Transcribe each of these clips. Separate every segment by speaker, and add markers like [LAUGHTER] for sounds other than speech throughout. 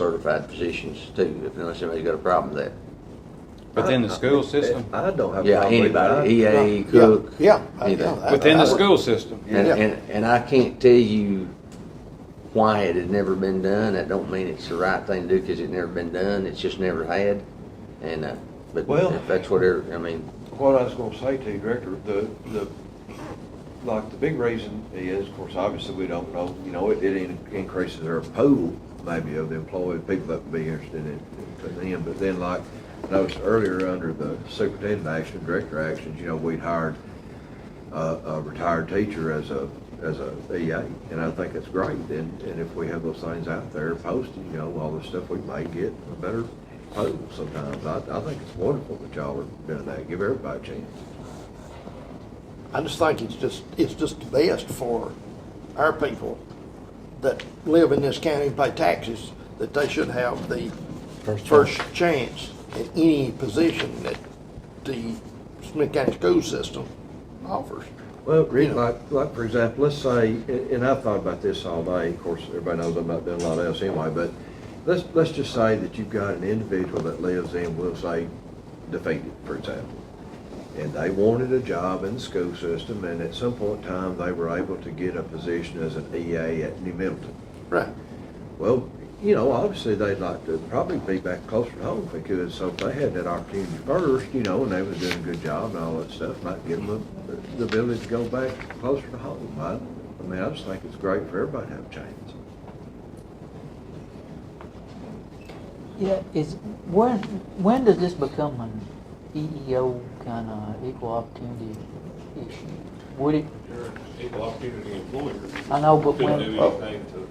Speaker 1: non-certified positions too, unless somebody's got a problem with that.
Speaker 2: Within
Speaker 3: Uh,
Speaker 2: the school system?
Speaker 4: I don't have. a
Speaker 1: Yeah,
Speaker 4: problem with that.
Speaker 1: anybody, EA, cook.
Speaker 5: Yeah, yeah,
Speaker 1: anything.
Speaker 5: yeah, that-
Speaker 2: Within
Speaker 5: I
Speaker 2: the
Speaker 5: would-
Speaker 2: school system?
Speaker 1: And,
Speaker 5: Yeah.
Speaker 1: and, and I can't tell you why it had never been done. That don't mean it's the right thing to do because it never been done. It's just never had. And, uh, but
Speaker 3: Well-
Speaker 1: if that's what, every- I mean,
Speaker 3: What I was gonna say to you, Director, the, the, like, the big reason is, of course, obviously, we don't know, you know, it, it in- increases our pool, maybe, of the employed people that would be interested in, in them, but then, like, I noticed earlier, under the superintendent action, director actions, you know, we'd hired a, a retired teacher as a, as a EA, and I think it's great, and, and if we have those things out there posted, you know, all the stuff we may get, a better pool sometimes. I, I think it's wonderful that y'all are doing that, give everybody a chance.
Speaker 5: I just think it's just, it's just the best for our people that live in this county and pay taxes, that they should have the first chance at any position that the Smith County school system offers.
Speaker 3: Well, like, like, for example, let's say, and and I've thought about this all day, of course, everybody knows I'm not doing a lot else anyway, but let's, let's just say that you've got an individual that lives in, we'll say, defeated, for example. And they wanted a job in the school system, and at some point in time, they were able to get a position as an EA at New Middleton.
Speaker 5: Right.
Speaker 3: Well, you know, obviously they'd like to probably be back closer to home if they could, so if they had that opportunity first, you know, and they was doing a good job and all that stuff, might give them the ability to go back closer to home. I, I mean, I just think it's great for everybody to have a chance.
Speaker 6: Yeah, is, when, when does this become an E EEO kind of equal opportunity issue? Would it,
Speaker 7: You're an equal opportunity employer.
Speaker 6: I know, but
Speaker 7: Couldn't
Speaker 6: when,
Speaker 7: do anything to,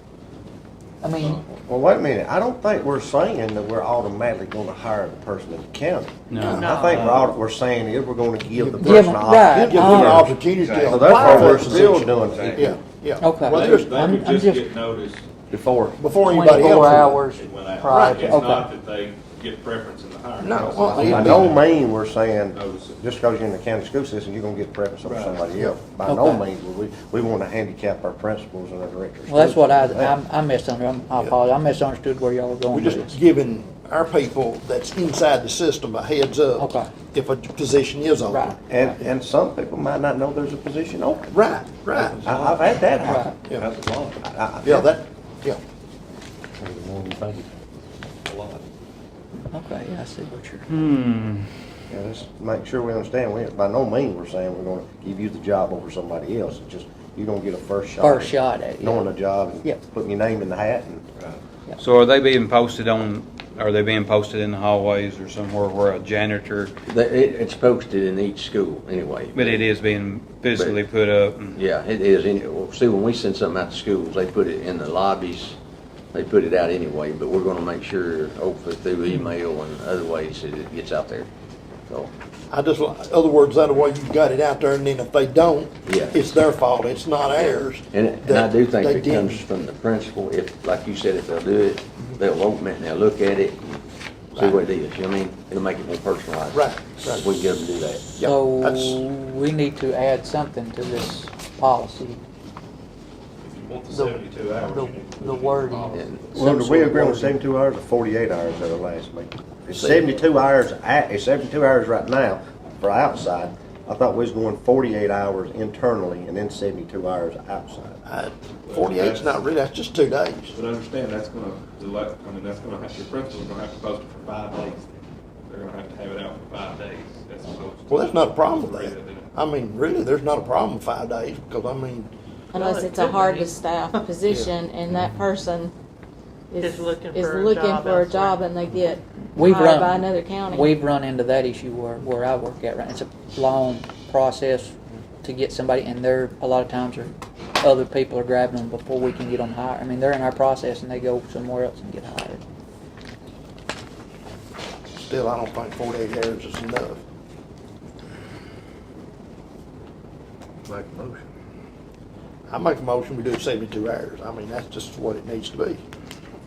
Speaker 6: I mean,
Speaker 8: Well, wait a minute, I don't think we're saying that we're automatically gonna hire the person in the county.
Speaker 2: No.
Speaker 8: I think we're, aut- we're saying is we're gonna give the
Speaker 6: Give
Speaker 8: person an
Speaker 6: them- right,
Speaker 5: Give them
Speaker 6: uh-huh.
Speaker 5: an
Speaker 8: opportunity.
Speaker 5: opportunity to
Speaker 8: So therefore,
Speaker 5: apply
Speaker 8: we're
Speaker 5: for
Speaker 8: still
Speaker 5: it.
Speaker 8: doing it
Speaker 5: Yeah, yeah.
Speaker 6: Okay.
Speaker 5: Well,
Speaker 7: they
Speaker 5: there's-
Speaker 6: I'm-
Speaker 7: they
Speaker 6: I'm
Speaker 7: could just
Speaker 6: just-
Speaker 7: get noticed
Speaker 8: before.
Speaker 5: Before anybody else.
Speaker 6: twenty-four hours
Speaker 7: it went out.
Speaker 6: prior,
Speaker 7: It's not
Speaker 6: okay.
Speaker 7: that they get preference in the hiring
Speaker 5: No,
Speaker 7: process.
Speaker 5: well,
Speaker 8: By
Speaker 5: Yeah.
Speaker 8: no mean we're saying,
Speaker 7: Notice it.
Speaker 8: just because you're in the county school system, you're gonna get preference over
Speaker 7: Right.
Speaker 8: somebody else. By no
Speaker 6: Okay.
Speaker 8: means, would we, we wanna handicap our principals and our directors.
Speaker 6: Well, that's what I,
Speaker 8: Yeah.
Speaker 6: I I misunderstood, I apologize, I misunderstood where y'all were
Speaker 5: We're
Speaker 6: going with
Speaker 5: just
Speaker 6: this.
Speaker 5: giving our people that's inside the system a heads up.
Speaker 6: Okay.
Speaker 5: If a position is
Speaker 6: Right,
Speaker 5: open.
Speaker 8: And, and some people might not know there's a position open.
Speaker 5: Right, right.
Speaker 8: I, I've had that
Speaker 6: right.
Speaker 8: happen.
Speaker 5: Yeah.
Speaker 3: That's a lot,
Speaker 8: I- I-
Speaker 5: Yeah, that, yeah.
Speaker 3: a lot.
Speaker 6: Okay, yeah, I see what you're,
Speaker 2: Hmm,
Speaker 8: Yeah, let's make sure we understand, we, by no means we're saying we're gonna give you the job over somebody else, it's just, you're gonna get a first shot.
Speaker 6: first shot at it. yeah.
Speaker 8: Knowing the job, and putting your name in the hat and.
Speaker 2: so are they being posted on, are they being posted in the hallways or somewhere where a janitor,
Speaker 1: that, it, it's posted in each school anyway.
Speaker 2: but it is being physically put up? and-
Speaker 1: Yeah, it is. any- well, See, when we send something out to schools, they put it in the lobbies. They put it out anyway, but we're gonna make sure, hopefully through
Speaker 5: Mm-hmm.
Speaker 1: email and other ways that it gets out there. So,
Speaker 5: I just, li- other words, that way you've got it out there, and then if they don't,
Speaker 1: Yeah.
Speaker 5: it's their fault, it's not ours.
Speaker 1: and, and I
Speaker 5: that
Speaker 1: do think
Speaker 5: they
Speaker 1: it comes
Speaker 5: didn't. Mm-hmm.
Speaker 1: from the principal. If, like you said, if they'll do it, they'll open it and they'll look at it, and see what it is. You know what I mean? It'll make it more personalized.
Speaker 5: Right, right.
Speaker 1: We can get them to do that.
Speaker 5: Yeah, that's-
Speaker 6: So, we need to add something to this policy,
Speaker 7: If you want the
Speaker 6: The-
Speaker 7: seventy-two hours,
Speaker 6: the-
Speaker 7: you need to
Speaker 6: the
Speaker 7: put it in
Speaker 6: wording.
Speaker 7: policy.
Speaker 1: And
Speaker 8: Well,
Speaker 5: Some
Speaker 8: did
Speaker 5: sort
Speaker 8: we
Speaker 5: of
Speaker 8: agree on
Speaker 5: wording.
Speaker 8: seventy-two hours or forty-eight hours at our last meeting? It's
Speaker 1: See.
Speaker 8: seventy-two hours, at- it's seventy-two hours right now for outside, I thought we was going forty-eight hours internally and then seventy-two hours outside.
Speaker 5: I- Forty-eight's not really, that's just two days.
Speaker 7: But understand, that's gonna, delay- I mean, that's gonna have, your principal's gonna have to post it for five days. They're gonna have to have it out for five days, as opposed to.
Speaker 5: Well, that's not a problem
Speaker 7: Three
Speaker 5: with that.
Speaker 7: that didn't.
Speaker 5: I mean, really, there's not a problem with five days, because I mean,
Speaker 9: Oh,
Speaker 10: Unless it's a hard to
Speaker 9: [LAUGHS]
Speaker 10: staff position and
Speaker 6: Mm-hmm.
Speaker 10: that person is,
Speaker 9: Is looking
Speaker 10: is
Speaker 9: for a
Speaker 10: looking
Speaker 9: job
Speaker 10: for a
Speaker 9: elsewhere.
Speaker 10: job and they get
Speaker 6: We've run-
Speaker 10: hired by another county.
Speaker 6: We've run into that issue where, where I work at, right? It's a long process to get somebody, and there, a lot of times, are other people are grabbing them before we can get them hired. I mean, they're in our process and they go somewhere else and get hired.
Speaker 5: still, I don't think forty-eight hours is enough.
Speaker 3: Make a motion.
Speaker 5: I make a motion, we do seventy-two hours. I mean, that's just what it needs to be.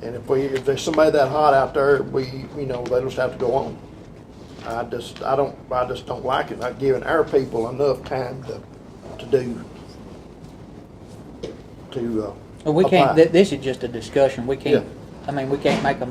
Speaker 5: And if we, if there's somebody that hot out there, we, you know, they just have to go on. I just, I don't, I just don't like it, not giving our people enough time to, to do, uh, to, uh.
Speaker 6: But we
Speaker 5: apply.
Speaker 6: can't, th- this is just a discussion, we can't, I mean, we can't make a